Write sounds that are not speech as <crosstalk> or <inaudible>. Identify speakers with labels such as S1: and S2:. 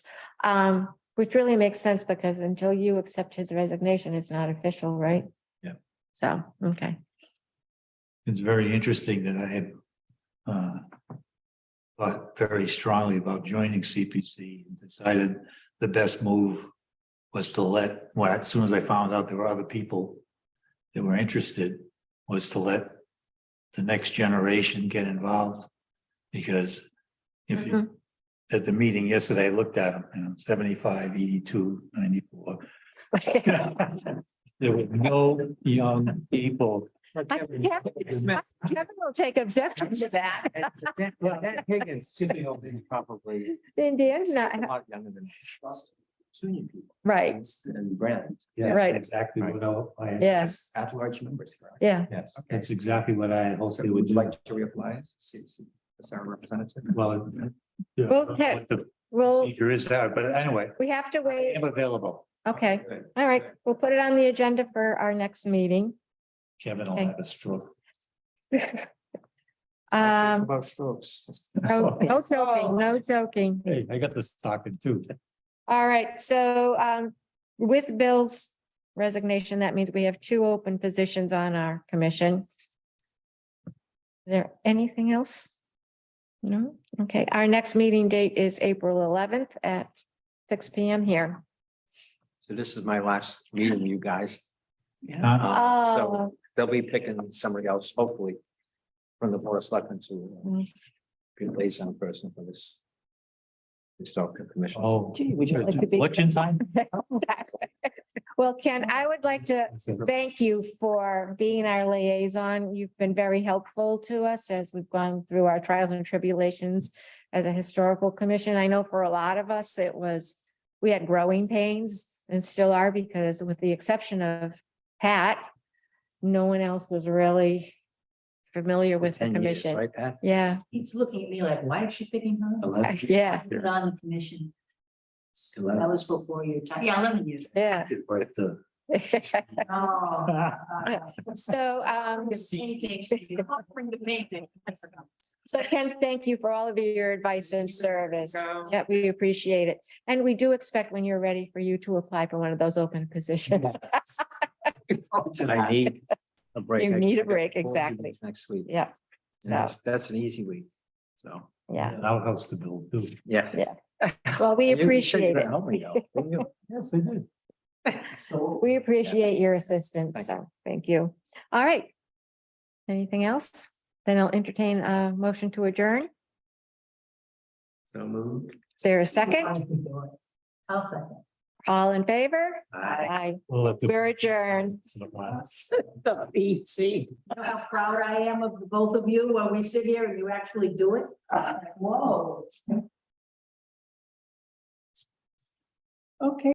S1: Um, which really makes sense because until you accept his resignation, it's not official, right?
S2: Yeah.
S1: So, okay.
S2: It's very interesting that I had uh, thought very strongly about joining CPC and decided the best move was to let, well, as soon as I found out there were other people that were interested, was to let the next generation get involved. Because if you, at the meeting yesterday, I looked at them, you know, 75, 82, 94. There were no young people.
S1: Kevin
S3: <laughs>
S1: Kevin will take objection to that.
S3: That Higgins, Sidney Hill is probably
S1: Then Dan's
S3: a
S1: not,
S3: lot younger than us, junior people.
S1: right,
S3: And Brand.
S2: Yeah,
S1: Right.
S2: Exactly what I- I,
S1: yes,
S3: At large members. correct?
S1: yeah.
S2: yes,
S3: Okay.
S2: that's exactly what I had hoped
S3: So
S2: they
S3: would
S2: would
S3: you
S2: do.
S3: like to reapply as CPC, as our representative?
S2: Well. it- yeah,
S1: Well,
S2: what
S1: Ted,
S2: the
S1: Well,
S2: Procedure is that, but anyway,
S1: we have to wait.
S2: I'm available.
S1: Okay, all right. We'll put it on the agenda for our next meeting.
S2: Kevin will
S1: Okay.
S2: have a stroke.
S1: Um,
S3: About strokes.
S1: no no joking, no joking.
S2: <laughs> Hey, I got the stocking too.
S1: All right, so um, with Bill's resignation, that means we have two open positions on our commission. Is there anything else? No, okay, our next meeting date is April eleventh at six P M here.
S3: So this is my last meeting, you guys.
S2: Yeah.
S3: Um, so
S1: Oh.
S3: They'll be picking somebody else, hopefully, from the board of selectmen to
S1: Mm.
S3: uh, be liaison person for this. Historical commission.
S2: Oh.
S1: Gee, would you like to be-
S2: Election time?
S1: Well, Ken, I would like to thank you for being our liaison. You've been very helpful to us as we've gone through our trials and tribulations as a historical commission. I know for a lot of us, it was, we had growing pains and still are because with the exception of Pat, no one else was really familiar with the
S3: 10 years,
S1: commission.
S3: Right, Pat? <laughs>
S1: Yeah,
S4: He's looking at me like, why is she picking her?
S3: Eleven years.
S1: yeah,
S4: She's on the commission.
S3: <laughs>
S4: That
S3: Eleven.
S4: was before your time. Yeah, eleven years.
S1: yeah. <laughs>
S2: Right, the-
S4: Oh.
S1: So,
S3: <laughs>
S1: um,
S4: <laughs> Bring the painting.
S1: So Ken, thank you for all of your advice and service. Yeah, we appreciate it. And we do expect when you're ready for you to apply for one of those open positions. <laughs>
S3: Did I need a break?
S1: You
S3: I-
S1: need a
S3: I got
S1: break,
S3: four
S1: exactly.
S3: meetings Next week.
S1: Yeah.
S3: And
S1: So,
S3: That's, that's an easy week, so,
S1: yeah.
S2: an Outhouse to build too.
S3: yeah.
S1: Yeah. Well, we
S3: You- you said
S1: appreciate
S3: you
S1: it.
S3: helped me out, didn't you?
S2: Yes, I
S3: <laughs>
S2: did.
S1: We appreciate your assistance.
S3: Thank
S1: So thank you. All right. Anything else? Then I'll entertain a motion to adjourn.
S3: So moved.
S1: Is there a second?
S4: I'll second.
S1: All in favor? <laughs>
S3: Aye.
S1: Aye.
S2: We'll have to-
S1: We're adjourned.
S3: The BT.
S4: You know how proud I am of the both of you when we sit here and you actually do it? Like, Whoa. Okay.